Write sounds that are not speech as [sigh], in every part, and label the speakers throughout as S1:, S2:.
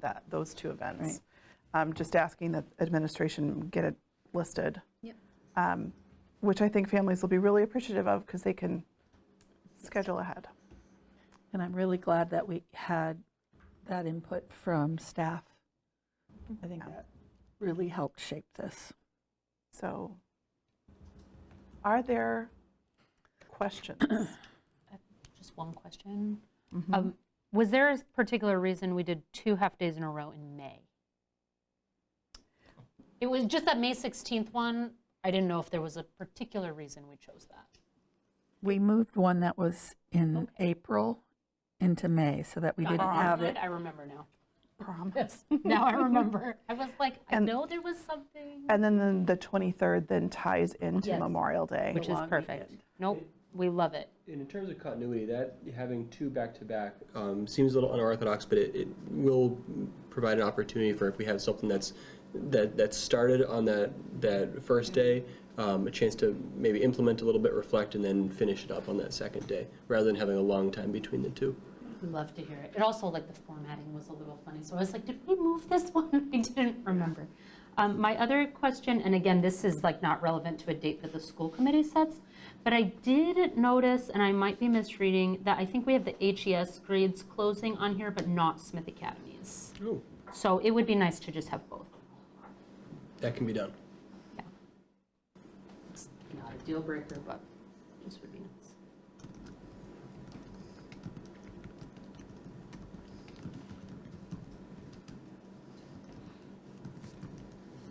S1: that, those two events. I'm just asking that administration get it listed.
S2: Yep.
S1: Um, Which I think families will be really appreciative of because they can schedule ahead.
S3: And I'm really glad that we had that input from staff. I think that really helped shape this.
S1: So are there
S2: [clears throat]
S1: questions? Mm-hmm.
S2: Just one question. Um, Was there a particular reason we did two half-days in a row in May? It was just that May 16th one, I didn't know if there was a particular reason we chose that.
S3: We moved one that was in April into May so that we didn't have it.
S2: I remember now.
S1: Prom?
S2: Yes, now I remember. I was like, I
S1: And-
S2: know there was something.
S1: And then the- the 23rd then ties into
S2: Yes.
S1: Memorial Day.
S2: Which is perfect. Nope, we love it.
S4: And in terms of continuity, that having two back-to-back um, seems a little unorthodox, but it, it will provide an opportunity for if we have something that's that that started on that that first day, um, a chance to maybe implement a little bit, reflect, and then finish it up on that second day, rather than having a long time between the two.
S2: We Love to hear it. And also, like, the formatting was a little funny, so I was like, did we move this [laughs] one? I didn't remember. Um, My other question, and again, this is like not relevant to a date that the school committee sets, but I did notice, and I might be misreading, that I think we have the HES grades closing on here, but not Smith Academies.
S4: Oh,
S2: So it would be nice to just have both.
S4: that can be done.
S2: It's Not a deal breaker, but just would be nice.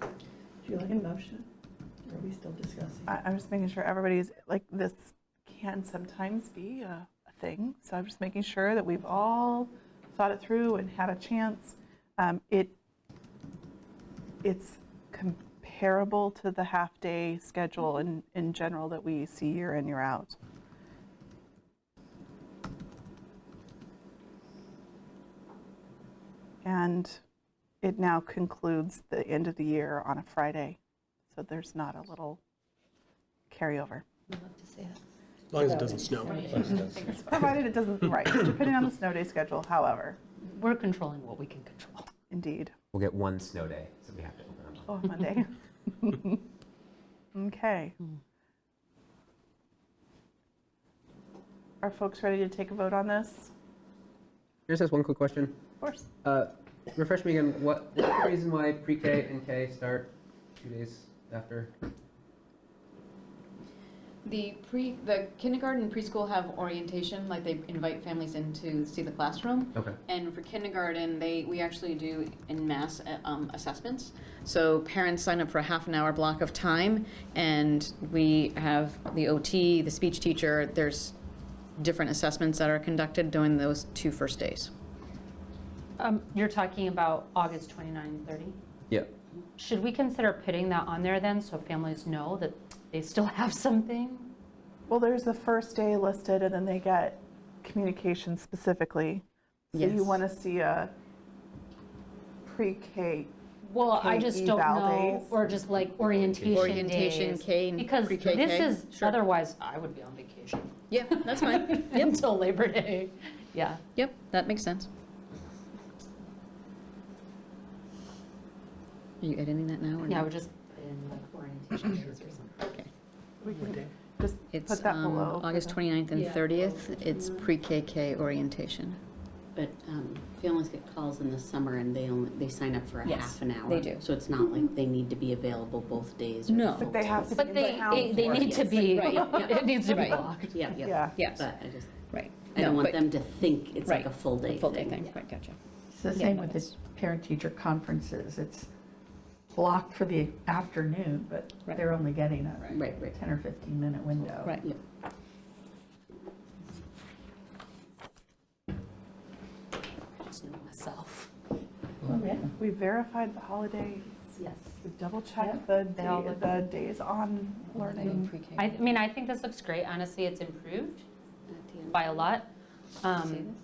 S5: Do you like a motion? Or Are we still discussing?
S1: I- I'm just making sure everybody's, like, this can sometimes be a a thing, so I'm just making sure that we've all thought it through and had a chance. Um, It, it's comparable to the half-day schedule in, in general that we see year in, year out. And it now concludes the end of the year on a Friday, so there's not a little carryover.
S2: I'd love to see it.
S4: As long as it doesn't snow.
S1: Provided it doesn't, right, depending on the snow day schedule, however,
S2: We're controlling what we can control.
S1: indeed,
S6: We'll get one snow day, so we have to open them up.
S1: oh, Monday. [laughs] Okay. Are folks ready to take a vote on this?
S6: Can I just ask one quick question?
S1: Of course.
S6: Uh, refresh me again, what, what's the reason why pre-K and K start two days after?
S7: The pre, the kindergarten and preschool have orientation, like they invite families in to see the classroom.
S6: Okay.
S7: And for kindergarten, they, we actually do in mass uh, um, assessments. So parents sign up for a half an hour block of time, and we have the OT, the speech teacher, there's different assessments that are conducted during those two first days.
S2: Um, You're talking about August 29, 30?
S6: Yeah.
S2: Should we consider putting that on there then, so families know that they still have something?
S1: Well, there's the first day listed, and then they get communication specifically. So you
S7: Yes.
S1: want to see a pre-K,
S2: Well, I just don't
S1: K-eval
S2: know,
S1: days.
S2: or just like orientation days.
S7: Orientation, K and
S2: Because
S7: pre-K,
S2: this
S7: K?
S2: is,
S7: Sure.
S2: otherwise, I would be on vacation [laughs]
S7: Yeah, that's [laughs] fine. Yep,
S2: until Labor Day. Yeah.
S7: yep, that makes sense. Are you editing that now or
S2: Yeah, I
S7: no?
S2: would just put in like orientation days or something.
S1: just
S7: It's
S1: put that
S7: um,
S1: below. for
S7: August
S1: the-
S7: 29th and
S2: Yeah.
S7: 30th. It's pre-KK orientation.
S8: But um, families get calls in the summer and they only, they sign up for a
S7: Yes,
S8: half an hour.
S7: they do.
S8: So it's not like they need to be available both days. or
S7: No.
S8: full
S1: But they have
S8: days.
S1: to be
S2: But
S1: in
S2: they,
S1: town
S2: it- they
S1: for it.
S2: need to be,
S7: Right, yeah.
S2: [laughs] it needs to be
S7: Right.
S2: blocked.
S8: Yeah, yeah.
S1: Yeah.
S7: Yes,
S8: But I just,
S7: right.
S8: I don't
S7: No,
S8: want
S7: but-
S8: them to think it's
S7: Right,
S8: like a full day.
S7: Full day thing, right, gotcha.
S3: It's the same with the parent-teacher conferences. It's blocked for the afternoon, but they're only getting a
S8: Right, right.
S3: 10 or 15-minute window.
S7: Right.
S8: Yeah.
S2: I just know myself.
S1: We verified the holidays.
S2: Yes.
S1: We double checked the,
S2: They all
S1: da-
S2: look
S1: the days on learning.
S2: I I mean, I think this looks great. Honestly, it's improved by a lot. Um,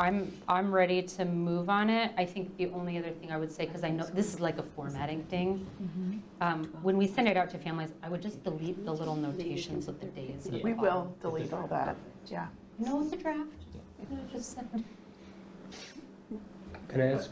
S2: I'm, I'm ready to move on it. I think the only other thing I would say, because I know, this is like a formatting thing. Um, When we send it out to families, I would just delete the little notations of the days. at the
S1: We
S2: bottom.
S1: will delete all that, yeah.
S2: No, it's a draft. You know, just send it.
S4: Can I ask